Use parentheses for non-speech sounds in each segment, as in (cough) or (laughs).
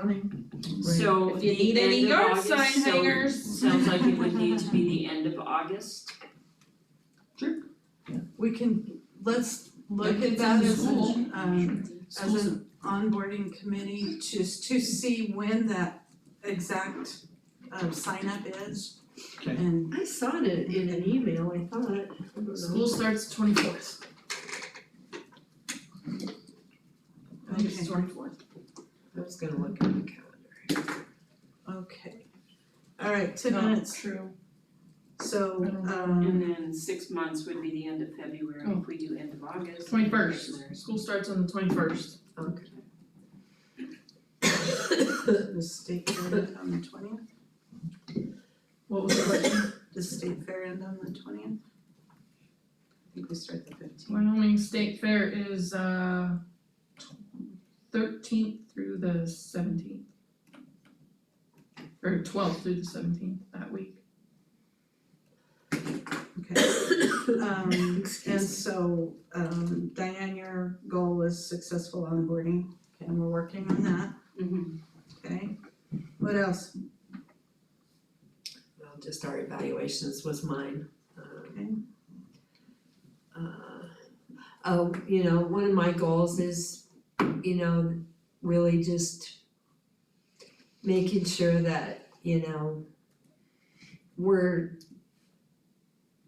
running. So If you the need any end of yard August, sign so hangers. Sounds like it would need to be (laughs) the end of August. We can, let's look Look at at that the as an, school. um, as Schools an onboarding committee, just to see when that exact um sign up is. Okay. And I saw it in an email, I thought, I don't know. School starts twenty fourth. I think Okay. it's twenty fourth. I was gonna look at the calendar. okay. All right, ten Um, minutes, true. so I don't know. um And then six months would be the end of February Oh. if we do end of August. Twenty first, school starts on the twenty first. the state fair end on the twentieth, What was the (coughs) question? the state fair end on the twentieth. I think we start the fifteenth. Wyoming State Fair is uh thirteenth through the seventeenth. Or twelfth through the seventeenth that week. Okay. Um and so um Diane, your goal is successful onboarding, and we're working on that, Mhm. okay? What else? Well, just our evaluations was mine, um. uh, Oh, you know, one of my goals is, you know, really just making sure that, you know, we're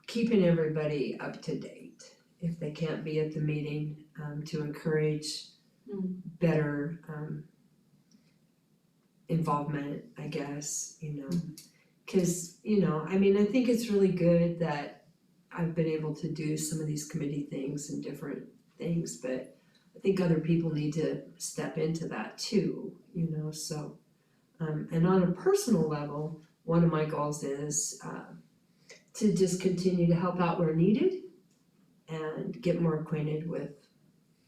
keeping everybody up to date. If they can't be at the meeting, um, to encourage Mm. better, um, involvement, I guess, you know. Cause, you know, I mean, I think it's really good that I've been able to do some of these committee things and different things, but I think other people need to step into that too, you know, so. Um, and on a personal level, one of my goals is, uh, to just continue to help out where needed and get more acquainted with,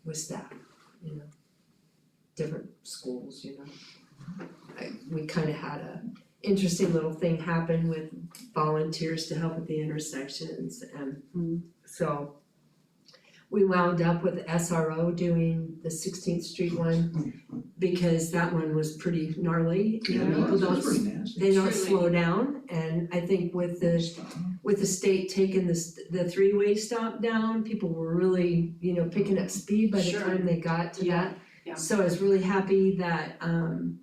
with staff, you know, different schools, you know. I, we kinda had a interesting little thing happen with volunteers to help at the intersections Mm. and so we wound up with SRO doing the Sixteenth Street one because that one was pretty gnarly and people don't That's pretty nasty. they don't Truly. slow down and I think with the with the state taking this the three-way stop down, people were really, you know, picking up speed by the Sure. time they got to that. Yeah, yeah. So I was really happy that um,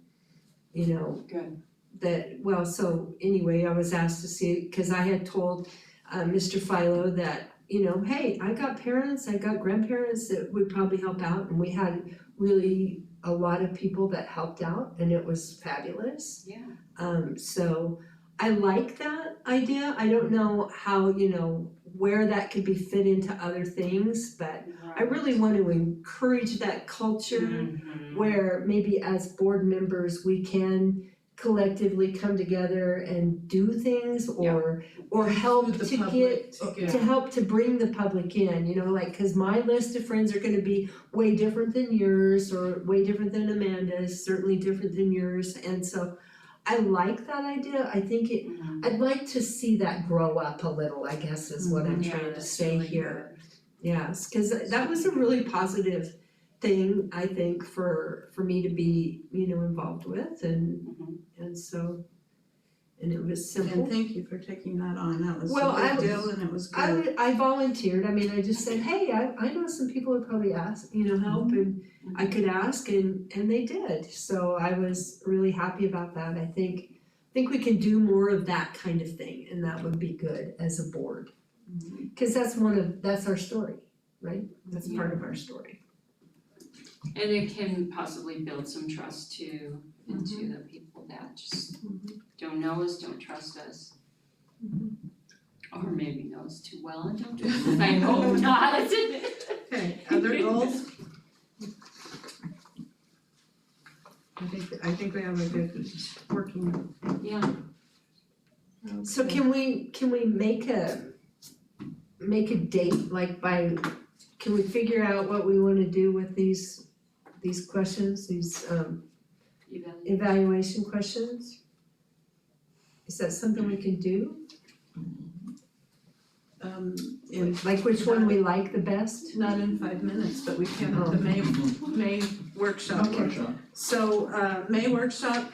you know. Good. That, well, so anyway, I was asked to see, cause I had told uh Mr. Philo that, you know, hey, I got parents, I got grandparents that would probably help out and we had really a lot of people that helped out and it was fabulous. Yeah, Um, so I like that idea. I don't know how, you know, where that could be fit into other things, but I really want to encourage that culture Mm-hmm. Mhm. where maybe as board members, we can collectively come together and do things or, or help With the to public Oh, get, to to help to bring the public in, you know, like, cause my list of friends are gonna be way different than yours or way different than Amanda's, certainly different than yours, and so I like that idea, I think it, Mhm. I'd like to see that grow up a little, I guess is what I'm Yeah, trying to that's say Mm-hmm. really here. Yes, cause that was a really positive thing, I think, for for me to be, you know, involved with and Mhm. and so and it was simple. And thank you for taking that on, that was Well, a I big was- deal and it was good. I would, I volunteered, I mean, I just said, hey, I I know some people would probably ask, you know, help and I could ask and and they did, so I was really happy about that, I think. I think we can do more of that kind of thing and that would be good as a board. Cause that's one of, that's our story, right? That's part of our story. And it can possibly build some trust too into Mm-hmm. the people that just don't know us, don't trust us. Or maybe know us too well and don't trust us, I (laughs) hope not. Okay, (laughs) other goals? I think, I think we have a good working. Yeah, So can we, can we make a, make a date, like by, can we figure out what we wanna do with these, these questions, these um even, evaluation questions? Is that something we can do? um in Like which one we like the best? not in five minutes, but we can, the May May workshop. Okay. So uh May workshop